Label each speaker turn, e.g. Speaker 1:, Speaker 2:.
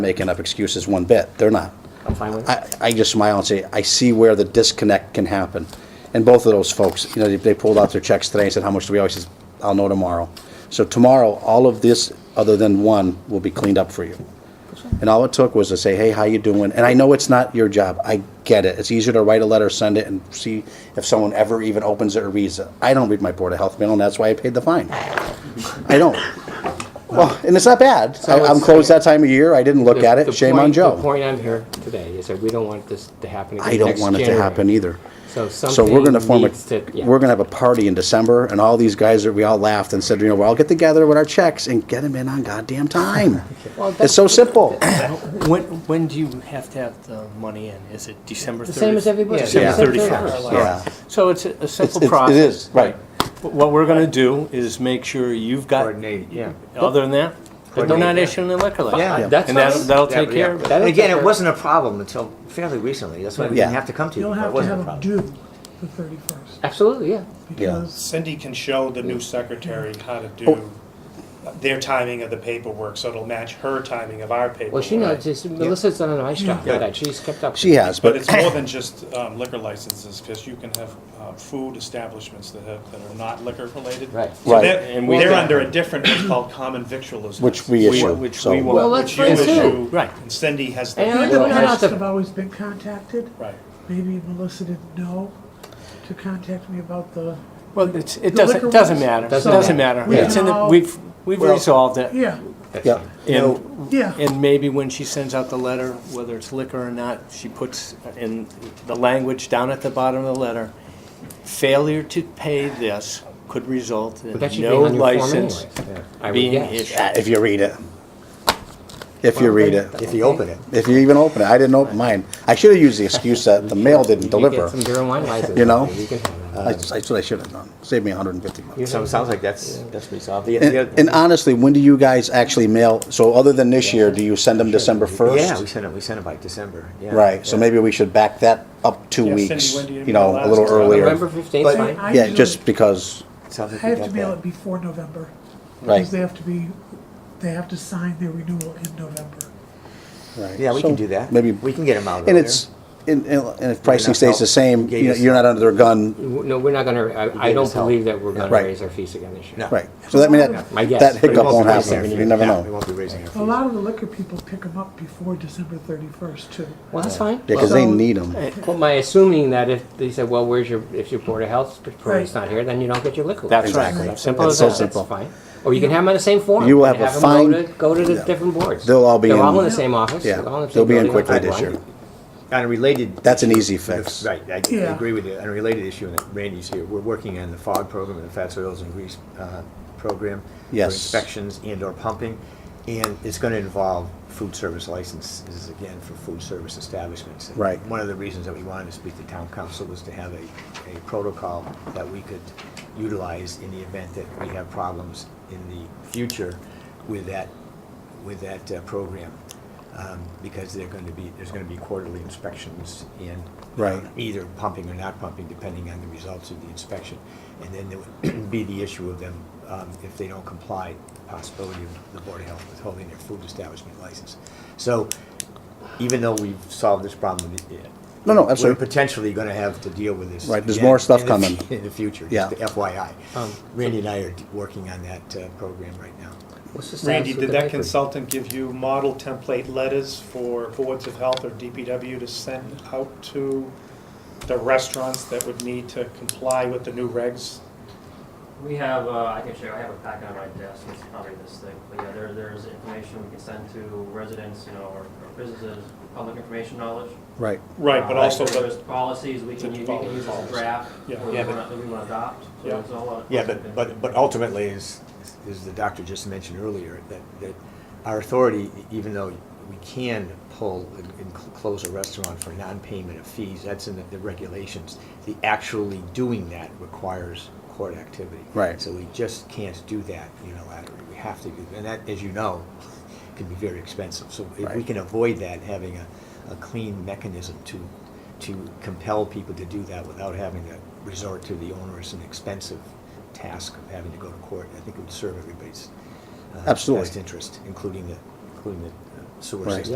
Speaker 1: making up excuses one bit. They're not.
Speaker 2: I'm fine with it.
Speaker 1: I, I just smile and say, I see where the disconnect can happen. And both of those folks, you know, they- they pulled out their checks today and said, how much do we owe? He says, I'll know tomorrow. So tomorrow, all of this, other than one, will be cleaned up for you. And all it took was to say, hey, how you doing? And I know it's not your job. I get it. It's easier to write a letter, send it, and see if someone ever even opens it or reads it. I don't read my Board of Health mail, and that's why I paid the fine. I don't. Well, and it's not bad. I- I'm
Speaker 2: it's-
Speaker 1: closed that time of year. I didn't look
Speaker 2: The-
Speaker 1: at
Speaker 2: the
Speaker 1: it. Shame on
Speaker 2: point-
Speaker 1: Joe.
Speaker 2: The point I'm here today is that we don't want this to happen again
Speaker 1: I don't
Speaker 2: next
Speaker 1: want it to
Speaker 2: January.
Speaker 1: happen either.
Speaker 2: So
Speaker 1: So we're gonna
Speaker 2: something
Speaker 1: form a,
Speaker 2: needs to, yeah.
Speaker 1: we're gonna have a party in December, and all these guys are, we all laughed and said, you know, we'll all get together with our checks and get them in on goddamn time. It's so simple.
Speaker 3: When, when do you have to have the money in? Is it December 31st?
Speaker 4: The same as everybody.
Speaker 3: December
Speaker 1: Yeah.
Speaker 3: 31st.
Speaker 1: Yeah.
Speaker 3: So it's a a
Speaker 1: It's-
Speaker 3: simple
Speaker 1: it's-
Speaker 3: process.
Speaker 1: It is, right.
Speaker 3: What we're going to do is make sure you've got.
Speaker 5: Coordinate, yeah.
Speaker 3: Other than that, but they're not
Speaker 5: Coordinate, yeah.
Speaker 3: issuing the liquor license.
Speaker 2: Yeah,
Speaker 1: Yeah.
Speaker 2: that's
Speaker 3: And that'll,
Speaker 2: fine.
Speaker 3: that'll
Speaker 5: Yeah,
Speaker 3: take
Speaker 5: yeah.
Speaker 3: care of it.
Speaker 2: That'll
Speaker 5: And again,
Speaker 2: take
Speaker 5: it
Speaker 2: care-
Speaker 5: wasn't a problem until fairly recently. That's why we
Speaker 1: Yeah.
Speaker 5: didn't have to come to
Speaker 6: You
Speaker 5: you. but
Speaker 6: don't have
Speaker 5: It
Speaker 6: to
Speaker 5: wasn't
Speaker 6: have
Speaker 5: a
Speaker 6: them
Speaker 5: problem.
Speaker 6: due the
Speaker 1: e-
Speaker 6: 31st.
Speaker 2: Absolutely, yeah.
Speaker 6: Because
Speaker 7: Cindy can show the new secretary how to do
Speaker 2: Oh.
Speaker 7: their timing of the paperwork, so it'll match her timing of our paperwork.
Speaker 2: Well, she knows, just- Melissa's done a nice job with that, she's kept up.
Speaker 1: She has,
Speaker 7: But
Speaker 1: but
Speaker 7: it's more than just um, liquor licenses, because you can have uh, food establishments that have, that are not liquor related.
Speaker 2: Right.
Speaker 7: So
Speaker 1: Right.
Speaker 7: they're,
Speaker 3: And we-
Speaker 7: they're under a different, what's called common victualism.
Speaker 1: which we
Speaker 3: We-
Speaker 1: issue,
Speaker 3: Which we
Speaker 1: so.
Speaker 2: Well,
Speaker 3: will.
Speaker 2: let's
Speaker 7: Which you
Speaker 2: bring
Speaker 7: issue,
Speaker 2: two.
Speaker 3: Right.
Speaker 7: and Cindy has
Speaker 2: And-
Speaker 7: the,
Speaker 6: Maybe
Speaker 2: Well,
Speaker 6: I
Speaker 2: that's
Speaker 6: must
Speaker 2: a-
Speaker 6: have always been contacted.
Speaker 7: right.
Speaker 6: Maybe Melissa didn't know to contact me about the,
Speaker 3: Well, it's, it
Speaker 6: The
Speaker 3: doesn't,
Speaker 6: liquor
Speaker 3: doesn't
Speaker 6: license.
Speaker 3: matter.
Speaker 2: Doesn't
Speaker 3: Doesn't
Speaker 2: matter.
Speaker 3: matter.
Speaker 6: We
Speaker 3: It's in, the-
Speaker 6: can all-
Speaker 3: we've, we've
Speaker 1: Well-
Speaker 3: resolved it.
Speaker 6: yeah,
Speaker 1: Yeah,
Speaker 3: And
Speaker 6: yeah.
Speaker 3: And maybe when she sends out the letter, whether it's liquor or not, she puts in the language down at the bottom of the letter, failure to pay this could result in
Speaker 2: But that should be
Speaker 3: no
Speaker 2: on your form
Speaker 3: license
Speaker 2: anyways. I would
Speaker 3: being
Speaker 2: guess.
Speaker 3: issued.
Speaker 1: if you read it. If you read it,
Speaker 5: If you open it.
Speaker 1: if you even open it. I didn't open mine. I should have used the excuse that the mail didn't
Speaker 2: You get
Speaker 1: deliver.
Speaker 2: some beer and wine license.
Speaker 1: You know?
Speaker 2: You uh, can have that.
Speaker 1: That's that's what I should have done. Saved me hundred and fifty bucks.
Speaker 5: So it sounds like that's, that's resolved. The-
Speaker 1: And
Speaker 5: the other-
Speaker 1: and honestly, when do you guys actually mail, so other than this year, do you send them December
Speaker 5: Yeah, we
Speaker 1: 1st?
Speaker 5: sent it, we sent it by December, yeah.
Speaker 1: Right, so
Speaker 5: Yeah.
Speaker 1: maybe we should back that up two
Speaker 7: Yeah, Cindy,
Speaker 1: weeks,
Speaker 7: when do you
Speaker 1: you know,
Speaker 7: mail
Speaker 1: a little
Speaker 7: last? Uh,
Speaker 1: earlier.
Speaker 2: November fifteenth,
Speaker 5: But-
Speaker 2: fine.
Speaker 6: I
Speaker 1: Yeah,
Speaker 6: usually-
Speaker 1: just because,
Speaker 5: Sounds
Speaker 6: I
Speaker 5: like we
Speaker 6: have
Speaker 5: got
Speaker 6: to mail it
Speaker 5: that.
Speaker 6: before November.
Speaker 1: Right.
Speaker 6: Because they have to be, they have to sign their renewal in November.
Speaker 1: right.
Speaker 5: Yeah, we can
Speaker 1: So
Speaker 5: do that.
Speaker 1: Maybe,
Speaker 5: We can get them out
Speaker 1: and
Speaker 5: earlier.
Speaker 1: it's, and and- and if pricing
Speaker 5: enough
Speaker 1: stays the
Speaker 5: help.
Speaker 1: same,
Speaker 5: Gave
Speaker 1: you know,
Speaker 5: us-
Speaker 1: you're not under their gun,
Speaker 2: No, we're not gonna, I, I
Speaker 5: gave
Speaker 2: don't
Speaker 5: us help.
Speaker 2: believe that we're gonna
Speaker 1: Right.
Speaker 2: raise our fees again this year.
Speaker 5: No.
Speaker 1: right. So that, I mean, that-
Speaker 2: My guess.
Speaker 1: that
Speaker 2: But it
Speaker 1: hiccup
Speaker 5: We
Speaker 1: won't
Speaker 5: be raising
Speaker 1: happen,
Speaker 5: our
Speaker 1: you
Speaker 5: fees.
Speaker 1: never
Speaker 5: Yeah, We
Speaker 1: know.
Speaker 5: won't be raising
Speaker 6: A
Speaker 5: our
Speaker 6: lot of the liquor people pick them up before December 31st too.
Speaker 2: Well, that's fine.
Speaker 1: Yeah, 'cause they
Speaker 6: So-
Speaker 1: need them.
Speaker 2: Well, my assuming that if they said, well, where's your, if your Board of Health person's
Speaker 6: Right.
Speaker 2: not here, then you don't get your liquor.
Speaker 3: That's right.
Speaker 2: license.
Speaker 1: Exactly.
Speaker 2: Simple
Speaker 1: It's
Speaker 2: as
Speaker 1: so
Speaker 2: that, that's
Speaker 1: simple.
Speaker 2: fine. Or you can have them on the same form.
Speaker 1: You will
Speaker 2: and
Speaker 1: have a
Speaker 2: 'em go
Speaker 1: fine-
Speaker 2: to- Go to the
Speaker 1: yeah.
Speaker 2: different boards.
Speaker 1: They'll all be
Speaker 2: They're all
Speaker 1: in-
Speaker 2: in the same office.
Speaker 1: Yeah.
Speaker 2: they're all in the
Speaker 1: They'll
Speaker 2: same
Speaker 1: be in
Speaker 2: building,
Speaker 1: quickly
Speaker 2: one
Speaker 1: this
Speaker 2: by one.
Speaker 1: year.
Speaker 5: fees. On a related.
Speaker 1: That's an easy fix.
Speaker 5: Right, I I
Speaker 6: Yeah.
Speaker 5: agree with you. On a related issue, and Randy's here, we're working on the FOG program, and the fats, oils, and grease uh, program.
Speaker 1: Yes.
Speaker 5: For inspections and/or pumping, and it's going to involve food service licenses, again, for food service establishments. And
Speaker 1: Right.
Speaker 5: One of the reasons that we wanted to speak to town council was to have a, a protocol that we could utilize in the event that we have problems in the future with that, with that uh, program. Um, Because they're going to be, there's going to be quarterly inspections and
Speaker 1: Right.
Speaker 5: um, either pumping or not pumping, depending on the results of the inspection. And then there would be the issue of them, um, if they don't comply, possibility of the Board of Health withholding their food establishment license. So even though we've solved this problem, it- it-
Speaker 1: No, no, absolutely.
Speaker 5: We're potentially gonna have to deal with this.
Speaker 1: Right, there's
Speaker 5: again
Speaker 1: more stuff
Speaker 5: in the fu-
Speaker 1: coming.
Speaker 5: In the future,
Speaker 1: Yeah.
Speaker 5: just FYI.
Speaker 2: Um,
Speaker 5: Randy and I are d- working on that uh, program right now.
Speaker 2: What's the status
Speaker 7: Randy,
Speaker 2: with
Speaker 7: did
Speaker 2: the
Speaker 7: that
Speaker 2: bakery?
Speaker 7: consultant give you model template letters for boards of health or DPW to send out to the restaurants that would need to comply with the new regs?
Speaker 8: We have, uh, I can share, I have a packet on my desk, it's probably this thing, but yeah, there, there's information we can send to residents, you know, or or businesses, public information knowledge.
Speaker 1: Right.
Speaker 7: Right, but
Speaker 8: Uh,
Speaker 7: also
Speaker 8: There's
Speaker 7: the,
Speaker 8: policies we can,
Speaker 7: The
Speaker 8: u- we can
Speaker 7: policy-
Speaker 8: use as a draft,
Speaker 7: Yeah.
Speaker 8: or we
Speaker 7: Yeah,
Speaker 8: wanna, we wanna adopt, so
Speaker 7: Yeah.
Speaker 8: there's a lot. of-
Speaker 5: Yeah, but, but, but ultimately, as, as the doctor just mentioned earlier, that, that our authority, e-, even though we can pull and and cl- close a restaurant for non-payment of fees, that's in the- the regulations. The actually doing that requires court activity.
Speaker 1: Right.
Speaker 5: So we just can't do that unilaterally. We have to do, and that, as you know, can be very expensive. So if we
Speaker 1: Right.
Speaker 5: can avoid that, having a, a clean mechanism to, to compel people to do that without having to resort to the onerous and expensive task of having to go to court, I think it would serve everybody's uh,
Speaker 1: Absolutely.
Speaker 5: best interest, including the, including the uh, sewer
Speaker 1: Right.
Speaker 5: system.